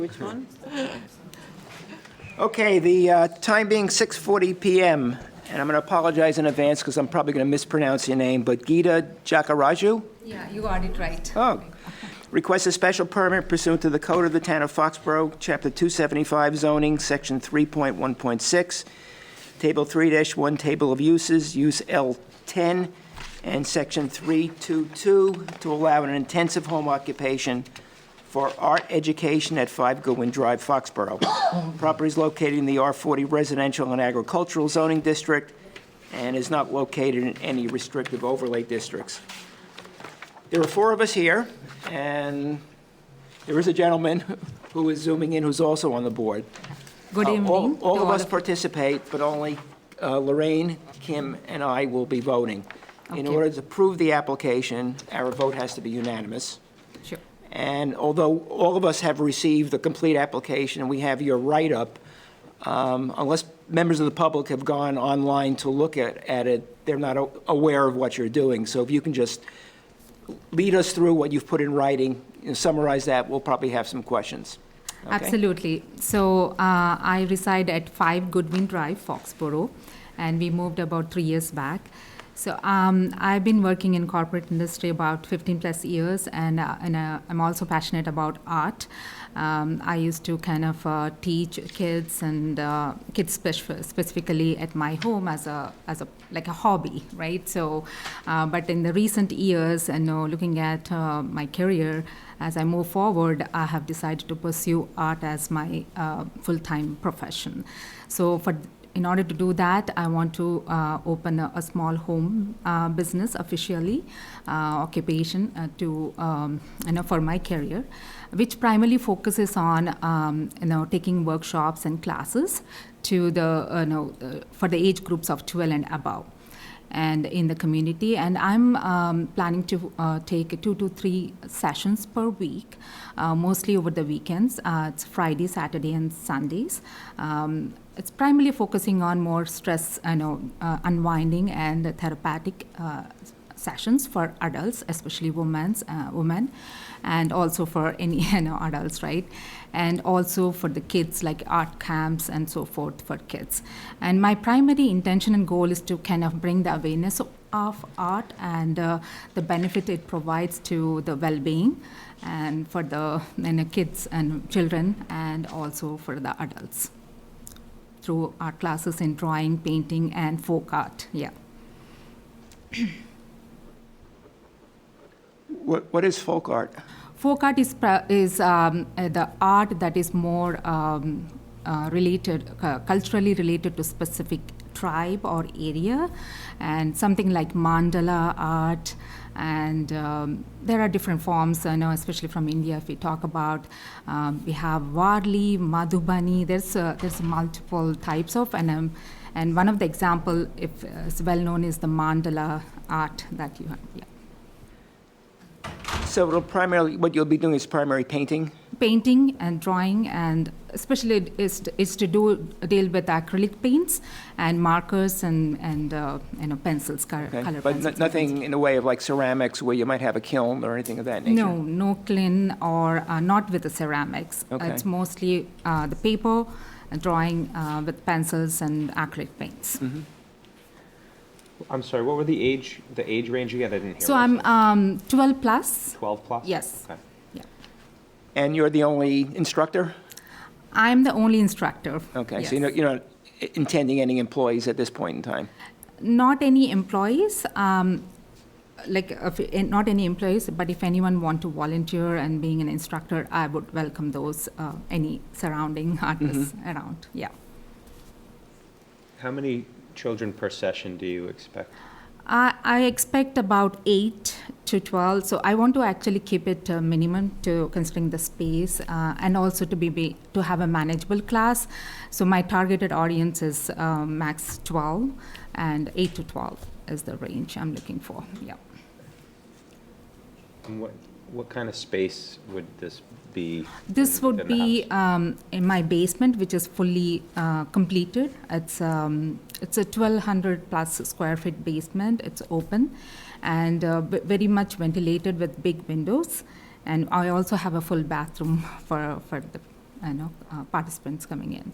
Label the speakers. Speaker 1: Which one?
Speaker 2: Okay, the uh, time being 6:40 PM, and I'm going to apologize in advance because I'm probably going to mispronounce your name, but Gita Jakaraju?
Speaker 3: Yeah, you got it right.
Speaker 2: Oh, requests a special permit pursuant to the Code of the Town of Foxborough, Chapter 275 zoning, Section 3.1.6, Table 3-1, Table of Uses, Use L10, and Section 322, to allow an intensive home occupation for art education at 5 Goodwin Drive, Foxborough. Property is located in the R40 Residential and Agricultural Zoning District and is not located in any restrictive overlay districts. There are four of us here, and there is a gentleman who is zooming in who's also on the board.
Speaker 3: Good
Speaker 2: Uh, all-
Speaker 3: evening. to
Speaker 2: All of us
Speaker 3: you.
Speaker 2: participate, but only uh, Lorraine, Kim, and I will be voting. In
Speaker 3: Okay.
Speaker 2: order to approve the application, our vote has to be unanimous.
Speaker 3: Sure.
Speaker 2: And although all of us have received the complete application, and we have your write-up, um, unless members of the public have gone online to look at, at it, they're not a- aware of what you're doing. So if you can just lead us through what you've put in writing, and summarize that, we'll probably have some questions. Okay?
Speaker 3: Absolutely. So uh, I reside at 5 Goodwin Drive, Foxborough, and we moved about three years back. So um, I've been working in corporate industry about 15 plus years, and uh, and uh, I'm also passionate about art. Um, I used to kind of uh, teach kids and uh, kids spec- specifically at my home as a as a like a hobby, right? So, uh, but in the recent years, and you know, looking at uh, my career, as I move forward, I have decided to pursue art as my uh, full-time profession. So, for in order to do that, I want to uh, open a, a small home uh, business officially, uh, occupation uh, to um, you know for my career, which primarily focuses on um, you know taking workshops and classes to the uh, you know uh, for the age groups of 12 and above and in the community. And I'm um, planning to uh, take two to three sessions per week, uh, mostly over the weekends. Uh, it's Friday, Saturday, and Sundays. Um, it's primarily focusing on more stress, you know, uh, unwinding and therapeutic uh, sessions for adults, especially women's uh, women, and also for any you know adults, right? And also for the kids, like art camps and so forth for kids. And my primary intention and goal is to kind of bring the awareness of- of art and uh, the benefit it provides to the well-being and for the you know, kids and children and also for the adults through art classes in drawing painting and folk art yeah
Speaker 2: What, what is folk art?
Speaker 3: Folk art is, pra- is um, uh, the art that is more um, uh, related, uh, culturally related to specific tribe or area, and something like mandala art. And um, there are different forms, I know, especially from India. If we talk about, um, we have Warli, Madhubani. There's uh, there's multiple types of, and um, and one of the example, if uh, is well known, is the mandala art that you have. Yeah.
Speaker 2: So it'll primarily, what you'll be doing is primary painting?
Speaker 3: painting and drawing and especially it is, is to do deal with acrylic paints and markers and and uh, you know pencils color,
Speaker 2: okay?
Speaker 3: color
Speaker 2: But no-
Speaker 3: pencils
Speaker 2: nothing in the way of like ceramics where you might have a kiln or anything of that nature?
Speaker 3: no no clean or uh, not with the ceramics
Speaker 2: Okay.
Speaker 3: it's mostly uh, the paper uh, drawing uh, with pencils and acrylic paints
Speaker 2: Mm-hmm.
Speaker 4: I'm sorry, what were the age, the age range again? I didn't hear.
Speaker 3: so
Speaker 4: what
Speaker 3: i'm
Speaker 4: you said.
Speaker 3: um, 12 plus
Speaker 4: 12 plus?
Speaker 3: yes.
Speaker 4: Okay.
Speaker 3: yeah
Speaker 2: And you're the only instructor?
Speaker 3: i'm the only instructor
Speaker 2: Okay,
Speaker 3: Yes.
Speaker 2: so you're not- you're not intending any employees at this point in time?
Speaker 3: not any employees um, like if, eh, not any employees but if anyone want to volunteer and being an instructor i would welcome those uh, any surrounding artists around yeah
Speaker 4: How many children per session do you expect?
Speaker 3: I, I expect about 8 to 12 so i want to actually keep it uh, minimum to considering the space uh, and also to be, be to have a manageable class so my targeted audience is um, max 12 and 8 to 12 is the range i'm looking for yeah
Speaker 4: And what, what kind of space would this be?
Speaker 3: This
Speaker 4: in-
Speaker 3: would
Speaker 4: in the
Speaker 3: be
Speaker 4: house?
Speaker 3: um, in my basement, which is fully uh, completed. It's um, it's a 1,200 plus square feet basement. It's open, and uh, b- very much ventilated with big windows. And I also have a full bathroom for for the you know, uh, participants coming in.